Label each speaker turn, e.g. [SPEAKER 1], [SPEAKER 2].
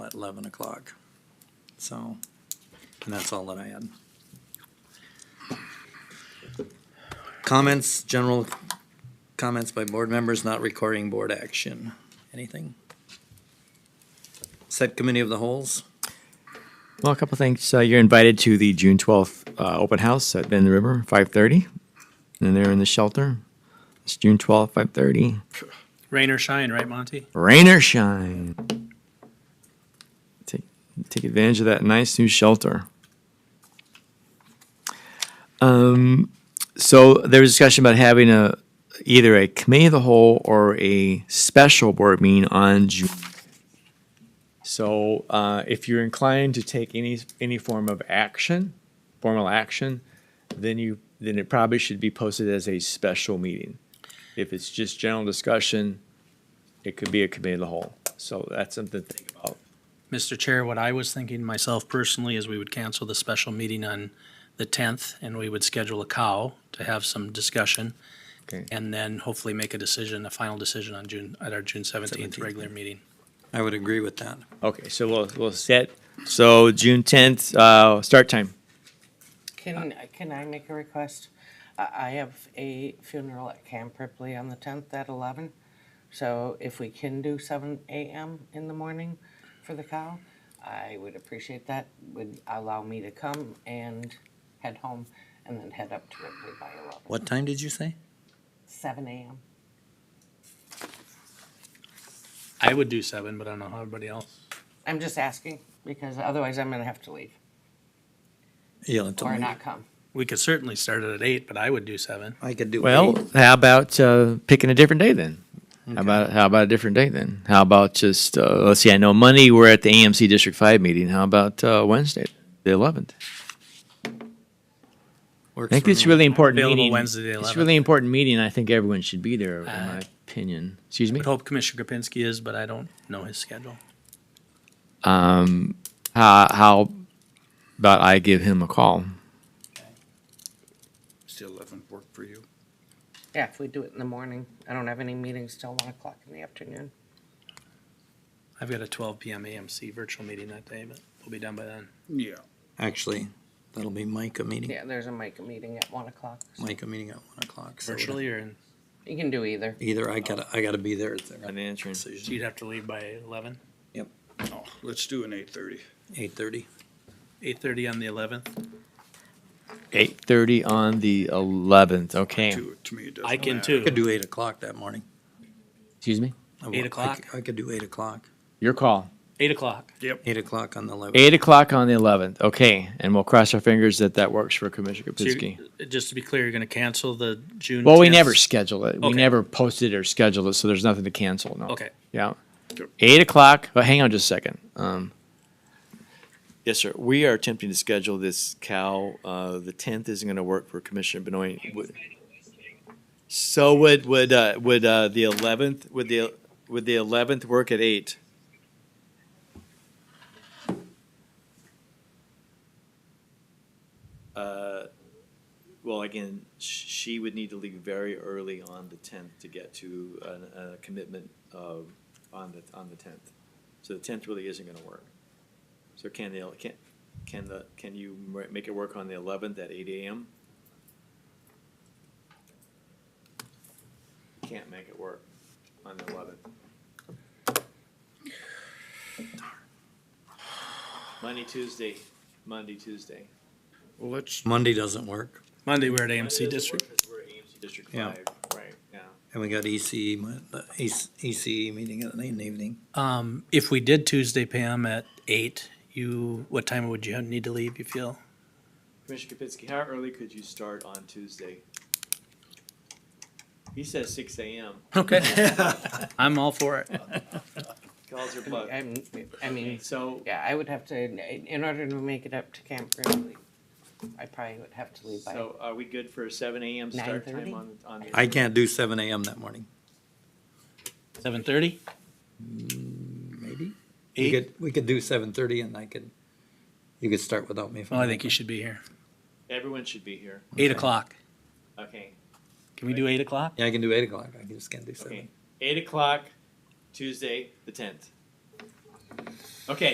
[SPEAKER 1] at eleven o'clock. So, and that's all that I had. Comments, general comments by board members not requiring board action. Anything? Set committee of the holes?
[SPEAKER 2] Well, a couple things. Uh, you're invited to the June 12th uh, open house at Bend River, 5:30, and they're in the shelter. It's June 12th, 5:30.
[SPEAKER 3] Rain or shine, right, Monty?
[SPEAKER 2] Rain or shine. Take take advantage of that nice new shelter. Um, so there was discussion about having a either a committee of the whole or a special board meeting on June. So uh, if you're inclined to take any any form of action, formal action, then you then it probably should be posted as a special meeting. If it's just general discussion, it could be a committee of the whole. So that's something to think about.
[SPEAKER 3] Mr. Chair, what I was thinking myself personally is we would cancel the special meeting on the tenth and we would schedule a cow to have some discussion.
[SPEAKER 2] Okay.
[SPEAKER 3] And then hopefully make a decision, a final decision on June, at our June seventeenth regular meeting.
[SPEAKER 1] I would agree with that.
[SPEAKER 2] Okay, so we'll we'll set. So June tenth, uh, start time.
[SPEAKER 4] Can, can I make a request? I, I have a funeral at Camp Ripley on the tenth at eleven. So if we can do seven AM in the morning for the cow, I would appreciate that. Would allow me to come and head home and then head up to Ripley by eleven.
[SPEAKER 1] What time did you say?
[SPEAKER 4] Seven AM.
[SPEAKER 3] I would do seven, but I don't know how everybody else.
[SPEAKER 4] I'm just asking because otherwise I'm gonna have to leave
[SPEAKER 1] You'll have to
[SPEAKER 4] or
[SPEAKER 1] leave.
[SPEAKER 4] not come.
[SPEAKER 3] We could certainly start it at eight, but I would do seven.
[SPEAKER 1] I could do
[SPEAKER 2] Well,
[SPEAKER 1] eight.
[SPEAKER 2] how about uh, picking a different day then? How about how about a different day then? How about just uh, let's see. I know Monday we're at the AMC District Five meeting. How about uh, Wednesday, the eleventh?
[SPEAKER 1] Works
[SPEAKER 2] I think
[SPEAKER 1] for
[SPEAKER 2] it's
[SPEAKER 1] me.
[SPEAKER 2] really important
[SPEAKER 3] Available
[SPEAKER 2] meeting.
[SPEAKER 3] Wednesday, the
[SPEAKER 2] It's
[SPEAKER 3] 11th.
[SPEAKER 2] really important meeting. I think everyone should be there, in my opinion. Excuse me.
[SPEAKER 3] Would hope Commissioner Kapinski is, but I don't know his schedule.
[SPEAKER 2] Um, how how about I give him a call?
[SPEAKER 5] Still eleven work for you?
[SPEAKER 4] Yeah, if we do it in the morning. I don't have any meetings till one o'clock in the afternoon.
[SPEAKER 3] I've got a twelve PM AMC virtual meeting that day, but we'll be done by then.
[SPEAKER 5] Yeah.
[SPEAKER 1] Actually, that'll be Micah meeting,
[SPEAKER 4] Yeah, there's a Micah meeting at one o'clock.
[SPEAKER 1] Micah meeting at one o'clock. so
[SPEAKER 3] Virtually or, in-
[SPEAKER 4] You can do either.
[SPEAKER 1] Either I gotta, I gotta be there at the
[SPEAKER 2] answering.
[SPEAKER 3] so you'd have to leave by eleven?
[SPEAKER 5] Oh, let's do an eight thirty.
[SPEAKER 1] eight thirty.
[SPEAKER 3] Eight thirty on the eleventh?
[SPEAKER 2] Eight thirty on the eleventh. Okay.
[SPEAKER 5] To, to me, it doesn't
[SPEAKER 3] I can
[SPEAKER 5] matter.
[SPEAKER 3] too.
[SPEAKER 1] Could do eight o'clock that morning.
[SPEAKER 2] Excuse me.
[SPEAKER 1] I will-
[SPEAKER 3] Eight
[SPEAKER 1] Oh, I
[SPEAKER 3] o'clock?
[SPEAKER 1] c- I could do eight o'clock,
[SPEAKER 2] Your call.
[SPEAKER 3] Eight o'clock.
[SPEAKER 5] Yep.
[SPEAKER 1] eight o'clock on the eleventh.
[SPEAKER 2] Eight o'clock on the eleventh. Okay, and we'll cross our fingers that that works for Commissioner
[SPEAKER 3] So
[SPEAKER 2] Kapinski.
[SPEAKER 3] you're- Just to be clear, you're gonna cancel the June.
[SPEAKER 2] Well, we
[SPEAKER 3] 10th
[SPEAKER 2] never schedule it. We
[SPEAKER 3] Okay.
[SPEAKER 2] never posted or scheduled it, so there's nothing to cancel. No.
[SPEAKER 3] Okay.
[SPEAKER 2] Yeah.
[SPEAKER 5] Sure.
[SPEAKER 2] Eight o'clock. But hang on just a second. Um, yes, sir. We are attempting to schedule this cow. Uh, the tenth isn't going to work for Commissioner Benoit. Would- So would would uh, would uh, the eleventh would the would the eleventh work at eight? Uh, well, again, sh- she would need to leave very early on the tenth to get to a, a commitment of, on the, on the tenth. So the tenth really isn't gonna work. So can the, can, can the, can you ma- make it work on the eleventh at eight AM? Can't make it work on the eleventh. Monday, Tuesday, Monday, Tuesday.
[SPEAKER 5] Well, let's,
[SPEAKER 1] Monday doesn't work,
[SPEAKER 3] Monday, we're at AMC District.
[SPEAKER 2] We're AMC District
[SPEAKER 1] Yeah.
[SPEAKER 2] five, right, yeah.
[SPEAKER 1] and we got ECE, mo- the E EC ECE meeting in the evening.
[SPEAKER 3] Um, if we did Tuesday, Pam, at eight, you, what time would you need to leave, you feel?
[SPEAKER 2] Commissioner Kapinski, how early could you start on Tuesday? He says six AM.
[SPEAKER 3] Okay. I'm all for it.
[SPEAKER 2] Calls are plugged.
[SPEAKER 4] I'm, I mean,
[SPEAKER 2] So,
[SPEAKER 4] yeah, I would have to, in- in order to make it up to Camp Grizzly, I probably would have to leave by,
[SPEAKER 2] so are we good for a seven AM start time
[SPEAKER 4] 9:30?
[SPEAKER 2] on, on? the-
[SPEAKER 1] I can't do seven AM that morning,
[SPEAKER 3] Seven thirty?
[SPEAKER 1] maybe. We
[SPEAKER 3] Eight?
[SPEAKER 1] could, we could do seven thirty and I could, you could start without me. if
[SPEAKER 3] Well, I think
[SPEAKER 1] okay.
[SPEAKER 3] you should be here.
[SPEAKER 2] Everyone should be here.
[SPEAKER 3] Eight o'clock.
[SPEAKER 2] Okay,
[SPEAKER 3] Can we do eight o'clock?
[SPEAKER 1] Yeah, I can do eight o'clock, I just can't do seven.
[SPEAKER 2] okay. Eight o'clock, Tuesday, the tenth. Okay,